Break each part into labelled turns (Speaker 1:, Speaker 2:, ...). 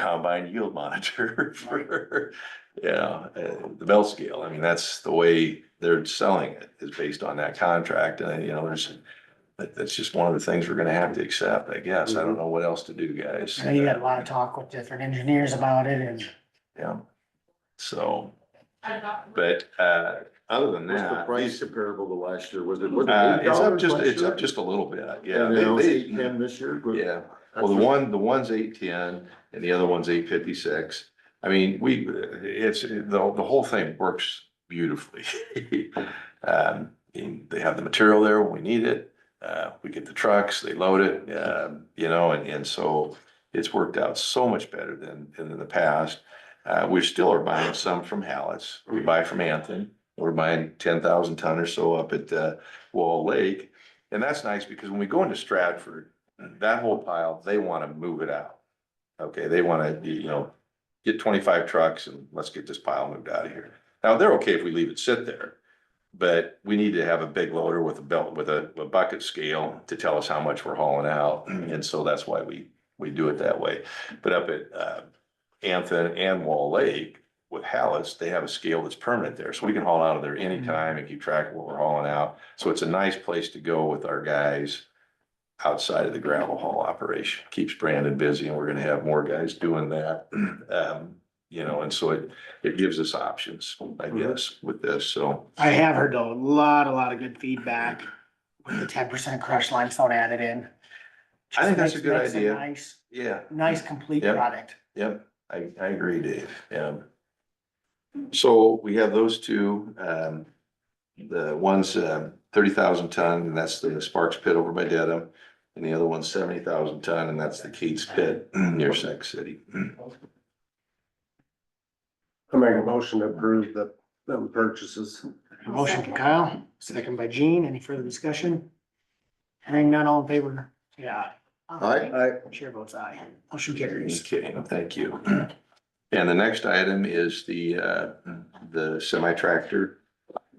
Speaker 1: combine yield monitor for, yeah, uh, the bell scale. I mean, that's the way they're selling it is based on that contract. And, you know, there's, that, that's just one of the things we're gonna have to accept, I guess. I
Speaker 2: Mm-hmm.
Speaker 1: don't know what else to do, guys.
Speaker 3: So you got a lot of talk with different engineers about it and
Speaker 1: Yeah. So, but, uh, other than
Speaker 2: What's the
Speaker 1: that,
Speaker 2: price
Speaker 1: these-
Speaker 2: comparable to last year? Was it? was it
Speaker 1: uh, it's up
Speaker 2: $8
Speaker 1: just,
Speaker 2: last
Speaker 1: it's
Speaker 2: year?
Speaker 1: up just a little bit. Yeah.
Speaker 2: And it was
Speaker 1: They-
Speaker 2: eight
Speaker 1: they-
Speaker 2: ten this year? Was-
Speaker 1: Yeah. Well, the one, the one's eight ten and the other one's eight fifty-six. I mean, we, it's, the, the whole thing works beautifully. Um, and they have the material there when we need it. Uh, we get the trucks, they load it, um, you know, and, and so it's worked out so much better than, than in the past. Uh, we still are buying some from Hallett's. We buy from Anthony. We're buying ten thousand ton or so up at, uh, Wall Lake. And that's nice because when we go into Stratford, that whole pile, they wanna move it out. Okay, they wanna, you know, get twenty-five trucks and let's get this pile moved out of here. Now, they're okay if we leave it sit there. But we need to have a big loader with a belt, with a, a bucket scale to tell us how much we're hauling out. And so that's why we, we do it that way. But up at, uh, Anthony and Wall Lake with Hallis, they have a scale that's permanent there. So we can haul out of there anytime and keep track of what we're hauling out. So it's a nice place to go with our guys outside of the gravel haul operation. Keeps Brandon busy and we're gonna have more guys doing that. Um, you know, and so it, it gives us options, I guess, with this, so.
Speaker 3: I have heard a lot, a lot of good feedback with the ten percent crushed limestone added in.
Speaker 1: I think that's a
Speaker 3: Just
Speaker 1: good
Speaker 3: makes- makes
Speaker 1: idea.
Speaker 3: Nice,
Speaker 1: Yeah,
Speaker 3: nice complete
Speaker 1: Yep.
Speaker 3: product.
Speaker 1: yep, I, I agree, Dave, yeah. So we have those two, um, the one's, uh, thirty thousand ton, and that's the Sparks Pit over by Dedham. And the other one's seventy thousand ton, and that's the Keats Pit near Sac City.
Speaker 4: I make a motion to approve the, them purchases.
Speaker 3: Motion from Kyle, second by Gene. Any further discussion? Hearing none, all in favor? Yeah.
Speaker 1: Aye.
Speaker 4: I,
Speaker 3: Chair votes aye. Motion carries.
Speaker 1: Okay, thank you. And the next item is the, uh, the semi tractor.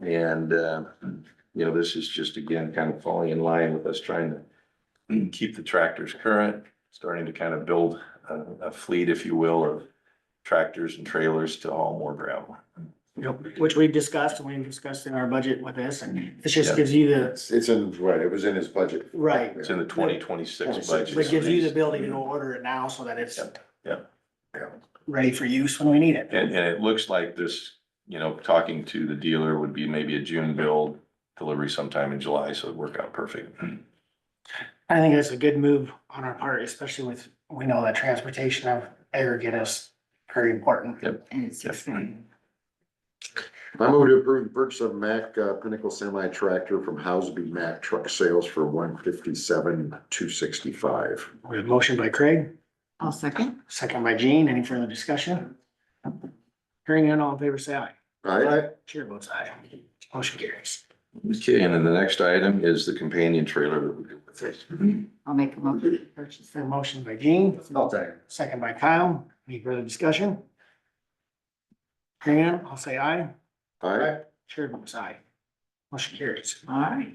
Speaker 1: And, uh, you know, this is just again kind of falling in line with us trying to keep the tractors current, starting to kind of build a, a fleet, if you will, of tractors and trailers to haul more gravel.
Speaker 3: Yep, Which we've discussed and we've discussed in our budget with this and this just
Speaker 1: Yeah.
Speaker 3: gives you the,
Speaker 2: It's, it's in, right, it was in his budget.
Speaker 3: Right.
Speaker 1: It's in the twenty twenty-six budget.
Speaker 3: but gives you the ability to order it now so that it's
Speaker 1: Yep, yep.
Speaker 3: ready for use when we need it.
Speaker 1: And, and it looks like this, you know, talking to the dealer would be maybe a June build, delivery sometime in July, so it'd work out perfect.
Speaker 3: I think that's a good move on our part, especially with, we know that transportation of aggregate is very important.
Speaker 5: And it's expensive.
Speaker 2: I move to approve the purchase of Mack uh, Pinnacle semi tractor from Housby Mack Truck Sales for one fifty-seven, two sixty-five.
Speaker 3: We have motion by Craig,
Speaker 5: I'll second.
Speaker 3: second by Gene. Any further discussion? Hearing none, all in favor, say aye.
Speaker 2: All right,
Speaker 3: Chair votes aye. Motion carries.
Speaker 1: Okay, and then the next item is the companion trailer that we do with it.
Speaker 5: I'll make a motion to purchase
Speaker 3: A
Speaker 5: them.
Speaker 3: motion by Gene,
Speaker 4: I'll take it.
Speaker 3: second by Kyle. Any further discussion? Hearing none, I'll say aye.
Speaker 2: all right.
Speaker 3: Chair votes aye. Motion carries.
Speaker 5: All right.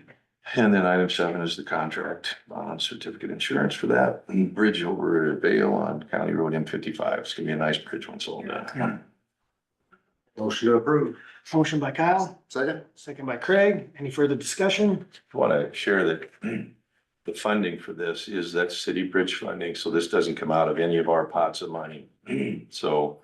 Speaker 1: And then item seven is the contract on certificate insurance for that bridge over at Vale on County Road M fifty-five. It's gonna be a nice bridge once all done.
Speaker 4: Motion to approve.
Speaker 3: Motion by Kyle,
Speaker 2: Second?
Speaker 3: second by Craig. Any further discussion?
Speaker 1: want to share that the funding for this is that city bridge funding, so this doesn't come out of any of our pots of money. So,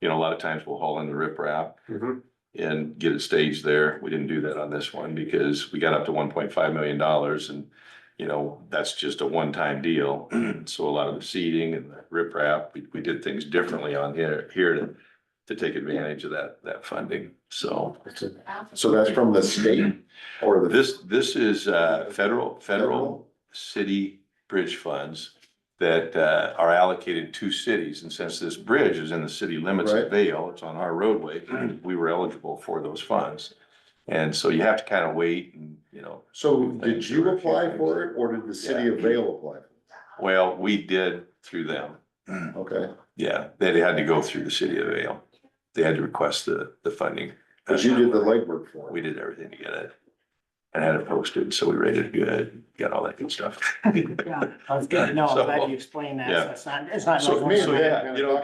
Speaker 1: you know, a lot of times we'll haul in the riprap
Speaker 4: Mhm.
Speaker 1: and get it staged there. We didn't do that on this one because we got up to one point five million dollars and, you know, that's just a one-time deal. So a lot of the seeding and the riprap, we, we did things differently on here, here to, to take advantage of that, that funding, so.
Speaker 2: So that's from the state or the?
Speaker 1: This, this is, uh, federal, federal city bridge funds that, uh, are allocated to cities. And since this bridge is in the city limits of
Speaker 2: Right.
Speaker 1: Vale, it's on our roadway, we were eligible for those funds. And so you have to kind of wait and, you know,
Speaker 2: So did you apply for it or did the city of Vale apply?
Speaker 1: well, we did through them.
Speaker 2: Okay,
Speaker 1: Yeah, they had to go through the city of Vale. They had to request the, the funding. Uh,
Speaker 2: but you did the legwork for
Speaker 1: We
Speaker 2: it.
Speaker 1: did everything to get it and had it posted, so we rated good, got all that good stuff.
Speaker 3: Yeah, I was good to know. I'm glad you explained that. So it's not, it's not.
Speaker 1: So-
Speaker 3: no-
Speaker 2: me and
Speaker 1: so
Speaker 2: Matt
Speaker 1: yeah,
Speaker 2: kinda
Speaker 1: you know,
Speaker 2: talked